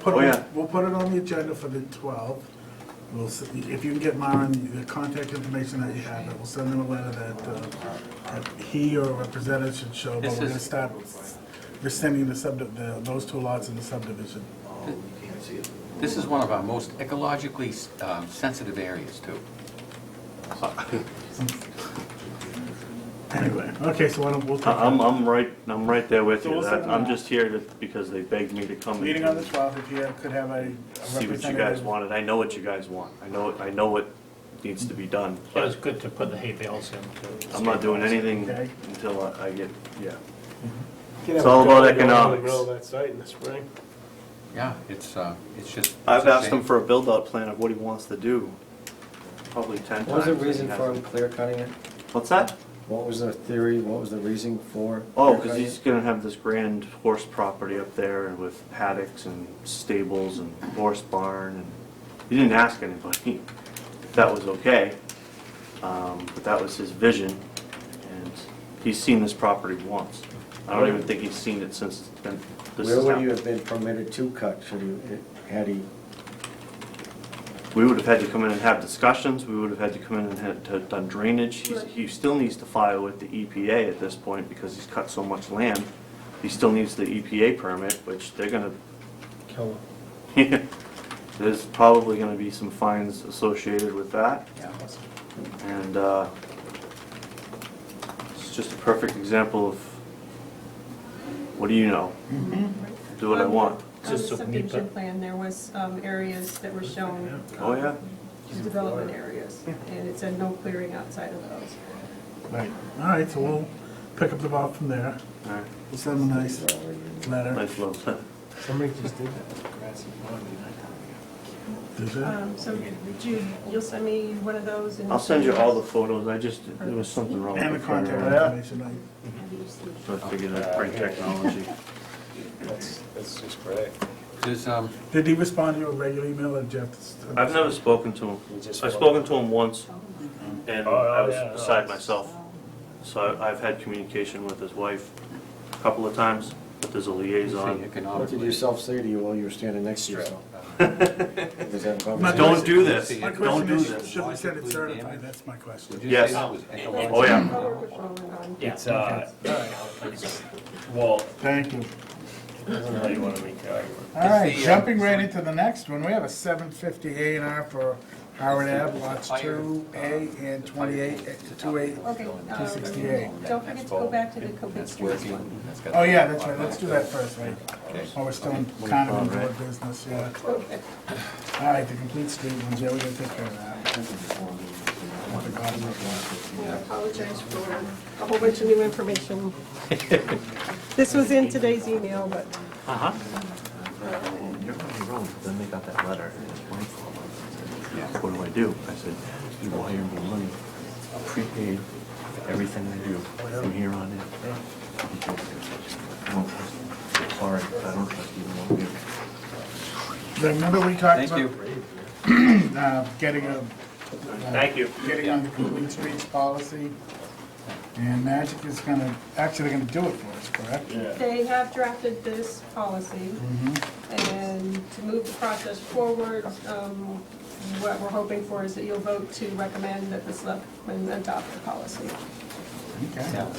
Put Oh, yeah. it, we'll put it on the agenda for the 12th. We'll, s- if you can get Myron the contact information that you have, and we'll send them a letter that, uh, that he or a representative should show, but This we're gonna is- start rescinding the subdiv, the- those two lots in the subdivision. This is one of our most ecologically um, sensitive areas, too. Anyway, okay, so why don't, we'll I- Uh, I'm, take I'm right, I'm right there with So you. we'll That- send I'm them- just here to- because they begged me to a come. meeting and on the 12th, if you could have a a See what you guys representative. wanted. I know what you guys want. I know, I know what needs to be done. But but it's good to put the hay bales in. I'm not doing anything Okay. until I I get, yeah. Can It's have a all about dog go out In the economics. middle of that site in the spring. Yeah, it's, uh, it's just. I've it's a asked shame. him for a build-out plan of what he wants to do, probably ten times. What was the and he reason for him hasn't. clear cutting it? What's that? What was the theory, what was the reason for? Oh, clear because cutting he's it? gonna have this grand horse property up there and with paddocks and stables and horse barn and, he didn't ask anybody if that was okay. Um, but that was his vision and he's seen this property once. I don't even think he's seen it since it's been, this Where has would you have happened. been permitted to cut, should you, had he, We would have had to come in and have discussions, we would have had to come in and had to done drainage. He's- He still needs to file with the EPA at this point because he's cut so much land. He still needs the EPA permit, which they're gonna Kill him. Yeah, There's probably gonna be some fines associated with that, Yeah. and, uh, it's just a perfect example of, what do you know? Mm-hmm. Do what I want. On the Just so Um, subdivision NEPA. plan, there was um, areas that were shown. Oh, yeah? um, Development areas, and it said no clearing outside of those. Right, all right, so we'll pick up the ball from there. Alright, We'll send them a nice letter. nice little thing. Somebody just did that with grass and lawn. Do that. Um, So Jude, you'll send me one of those and. Um, I'll send you all the photos, I just, there was something wrong. And the with the contact printer, information, like, So I figured I'd bring technology. That's, that's just great. There's, um, did he respond to your regular email or Jeff's? I've never spoken to him. You just- I've spoken to him once, and Oh, I oh, was yeah, no, beside it's- myself. So I- I've had communication with his wife a couple of times, but there's a liaison. what did economically. yourself say to you while you were standing next to yourself? Was that a My conversation? Don't do this, My don't question do is, this. should we send it Logically certified? damaged. That's my Did question. you Yes. say that was ecologically- Oh, yeah. I'll work with Roland on. It's, uh, well, Thank you. I don't know how you want to make the argument. All right, the, uh, jumping right into the next one, we have a seven fifty A and R for Howard Ave, lots two A and twenty-eight, two A. Okay, um, 268. don't forget to go back to the complete That's streets working. one. That's got- Oh, yeah, that's right, let's do that first, right? Okay. While we're still in- kind of in board business, yeah. Okay. All right, the complete street ones, yeah, we gotta take care of that. What the God knows what. I apologize for a whole bunch of new information. This was in today's email, but. You're probably wrong, but then they got that letter, and his wife called me and said, what do I do? I said, you wire me money, prepaid, everything I do, from here on in. I don't trust you. Sorry, I don't trust either one of you. Remember we talked Thank about, you. uh, getting a. Thank you. Getting on the complete streets policy, and Magic is gonna, actually gonna do it for us, correct? They have drafted this policy, and to move the process forward, um, what we're hoping for is that you'll vote to recommend that the selectmen adopt the policy. Okay. Yeah.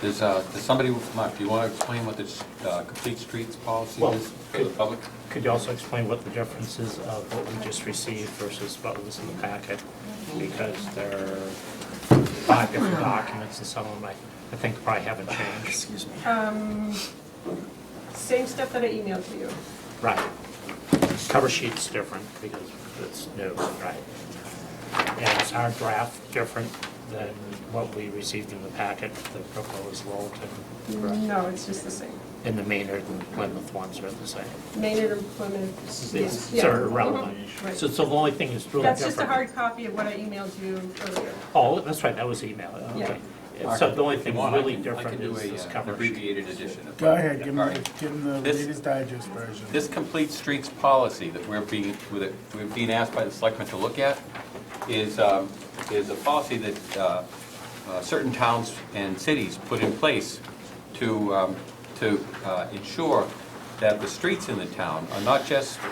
There's, uh, there's somebody, Mark, do you want to explain what this uh, complete streets policy Well, is for the public? Could you also explain what the difference is of what we just received versus what was in the packet? Because there are five different documents and some of them I, I think probably haven't changed. Um, Same stuff that I emailed to you. Right. Cover sheet's different because it's new, right? And is our draft different than what we received in the packet, the proposed Littleton? No, it's just the same. And the Maynard and Plymouth ones are the same. Maynard and Plymouth. It's yeah. sort of relevant. Mhm, right. So so the only thing that's really different. That's just a hard copy of what I emailed you earlier. Oh, that's right, that was email, okay. So the only If you thing want, I really can- I can different do is a, this uh, cover sheet. Abbreviated edition. of- Go ahead, give him, All the- right. give him the This- Reader's Digest version. This complete streets policy that we're being, that we're being asked by the selectmen to look at is, um, is a policy that uh, uh, certain towns and cities put in place to, um, to uh, ensure that the streets in the town are not just